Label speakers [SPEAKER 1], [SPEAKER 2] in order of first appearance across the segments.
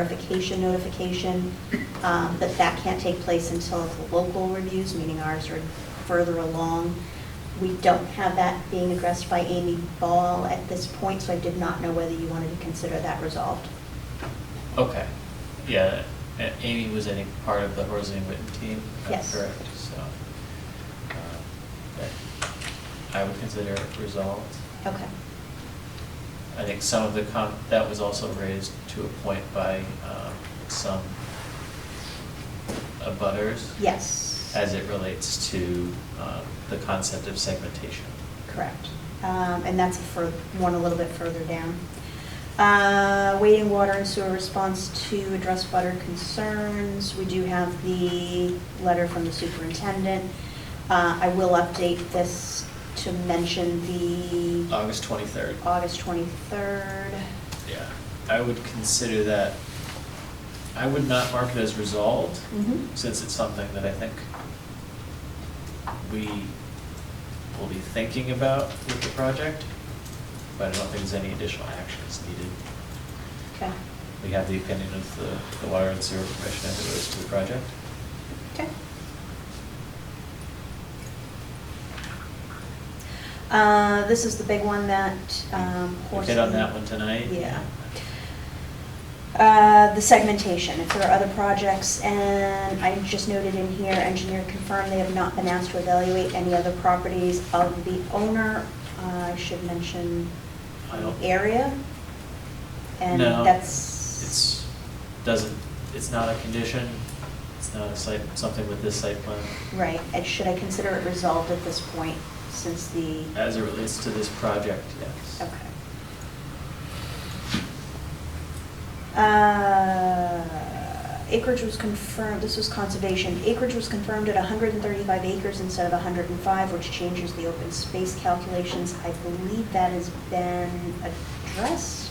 [SPEAKER 1] verification notification, um, but that can't take place until the local reviews, meaning ours are further along. We don't have that being addressed by Amy Ball at this point, so I did not know whether you wanted to consider that resolved.
[SPEAKER 2] Okay, yeah, A- Amy was any part of the Horsey and Witten team? That's
[SPEAKER 1] Yes.
[SPEAKER 2] Correct, so, um, that- I would consider it resolved.
[SPEAKER 1] Okay.
[SPEAKER 2] I think some of the, com- that was also raised to a point by um, some abutters
[SPEAKER 1] Yes.
[SPEAKER 2] as it relates to um, the concept of segmentation.
[SPEAKER 1] Correct. Um, And that's for, one a little bit further down. Uh, Waiting water and sewer response to address butter concerns. We do have the letter from the superintendent. Uh, I will update this to mention the
[SPEAKER 2] August 23rd.
[SPEAKER 1] August 23rd.
[SPEAKER 2] Yeah, I would consider that, I would not mark it as resolved,
[SPEAKER 1] Mhm.
[SPEAKER 2] since it's something that I think we will be thinking about with the project, but I don't think there's any additional actions needed.
[SPEAKER 1] Okay,
[SPEAKER 2] We have the opinion of the, the water and sewer commission as it relates to the project.
[SPEAKER 1] okay. Uh, This is the big one that um,
[SPEAKER 2] We
[SPEAKER 1] Horsley.
[SPEAKER 2] hit on that one tonight.
[SPEAKER 1] Yeah. Uh, The segmentation, if there are other projects, and I just noted in here, engineer confirmed they have not been asked to evaluate any other properties of the owner. Uh, I should mention
[SPEAKER 2] I don't-
[SPEAKER 1] area. And
[SPEAKER 2] No,
[SPEAKER 1] that's,
[SPEAKER 2] It's, doesn't, it's not a condition, it's not a site, something with this site plan.
[SPEAKER 1] right, and should I consider it resolved at this point, since the,
[SPEAKER 2] As it relates to this project, yes.
[SPEAKER 1] okay. Uh, Acreage was confirmed, this was conservation, acreage was confirmed at 135 acres instead of 105, which changes the open space calculations. I believe that has been addressed,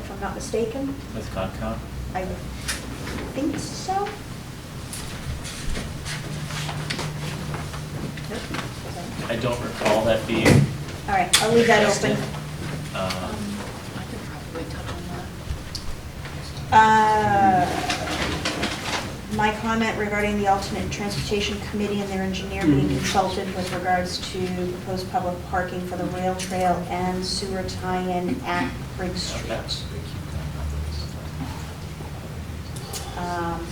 [SPEAKER 1] if I'm not mistaken.
[SPEAKER 2] With Concom?
[SPEAKER 1] I think so. Nope. Okay.
[SPEAKER 2] I don't recall that being.
[SPEAKER 1] All right, I'll leave that
[SPEAKER 2] addressed in,
[SPEAKER 1] open.
[SPEAKER 2] um,
[SPEAKER 3] I could probably touch on that.
[SPEAKER 1] Uh, My comment regarding the alternate transportation committee and their engineer being
[SPEAKER 2] Mm-hmm.
[SPEAKER 1] consulted with regards to proposed public parking for the rail trail and sewer tie-in at Briggs Street. Um,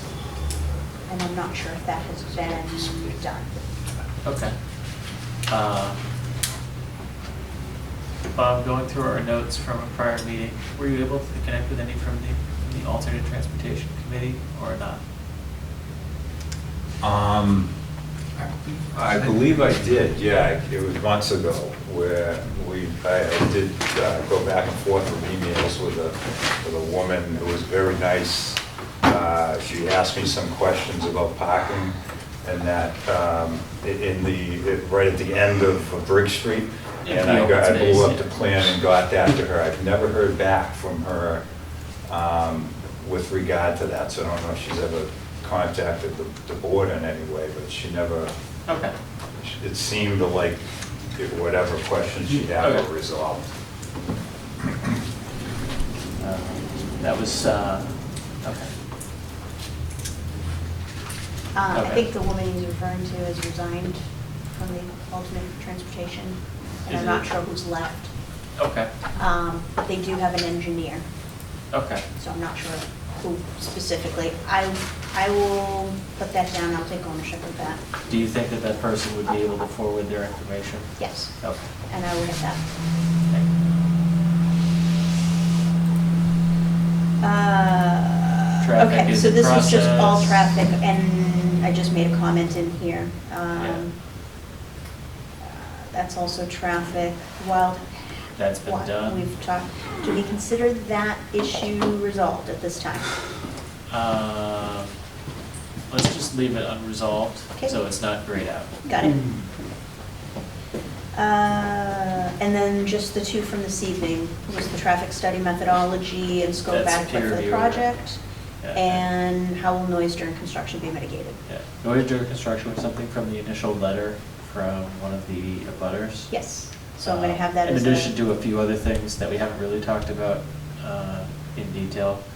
[SPEAKER 1] And I'm not sure if that has been done.
[SPEAKER 2] Okay. Uh, Bob, going through our notes from a prior meeting, were you able to connect with any from the, from the alternate transportation committee or not?
[SPEAKER 4] Um, I believe I did, yeah, it was months ago, where we, I I did uh, go back and forth with emails with a, with a woman who was very nice. Uh, She asked me some questions about parking, and that, um, i- in the, right at the end of Brick Street,
[SPEAKER 2] Yeah,
[SPEAKER 4] and
[SPEAKER 2] the
[SPEAKER 4] I
[SPEAKER 2] open
[SPEAKER 4] got, I
[SPEAKER 2] space,
[SPEAKER 4] blew up
[SPEAKER 2] yeah.
[SPEAKER 4] the plan and got that to her. I've never heard back from her um, with regard to that, so I don't know if she's ever contacted the the board in any way, but she never,
[SPEAKER 2] Okay.
[SPEAKER 4] it seemed like it- whatever questions she had
[SPEAKER 2] Okay.
[SPEAKER 4] were resolved.
[SPEAKER 2] Uh, That was, uh, okay.
[SPEAKER 1] Uh, I
[SPEAKER 2] Okay.
[SPEAKER 1] think the woman he's referring to has resigned from the alternate transportation, and I'm
[SPEAKER 2] Is
[SPEAKER 1] not
[SPEAKER 2] it-
[SPEAKER 1] sure who's left.
[SPEAKER 2] Okay,
[SPEAKER 1] Um, But they do have an engineer.
[SPEAKER 2] okay.
[SPEAKER 1] so I'm not sure who specifically. I, I will put that down, I'll take ownership of that,
[SPEAKER 2] Do you think that that person would be able to forward their information?
[SPEAKER 1] yes,
[SPEAKER 2] Okay.
[SPEAKER 1] and I will get that.
[SPEAKER 2] thank you.
[SPEAKER 1] Uh,
[SPEAKER 2] Traffic
[SPEAKER 1] Okay,
[SPEAKER 2] is
[SPEAKER 1] so
[SPEAKER 2] in
[SPEAKER 1] this is just all
[SPEAKER 2] process.
[SPEAKER 1] traffic, and I just made a comment in here. Um, That's also traffic, wild.
[SPEAKER 2] That's been
[SPEAKER 1] wild-
[SPEAKER 2] done.
[SPEAKER 1] We've talked, do we consider that issue resolved at this time?
[SPEAKER 2] Um, Let's just leave it unresolved,
[SPEAKER 1] Okay.
[SPEAKER 2] so it's not grayed out.
[SPEAKER 1] Got it. Uh, And then just the two from this evening, was the traffic study methodology and scope
[SPEAKER 2] That's
[SPEAKER 1] adequate for the
[SPEAKER 2] peer
[SPEAKER 1] project?
[SPEAKER 2] Yeah.
[SPEAKER 1] And how will noise during construction be mitigated?
[SPEAKER 2] Yeah. Noise during construction was something from the initial letter from one of the abutters.
[SPEAKER 1] Yes, so I'm going to
[SPEAKER 2] Uh,
[SPEAKER 1] have that as a...
[SPEAKER 2] In addition to a few other things that we haven't really talked about uh, in detail.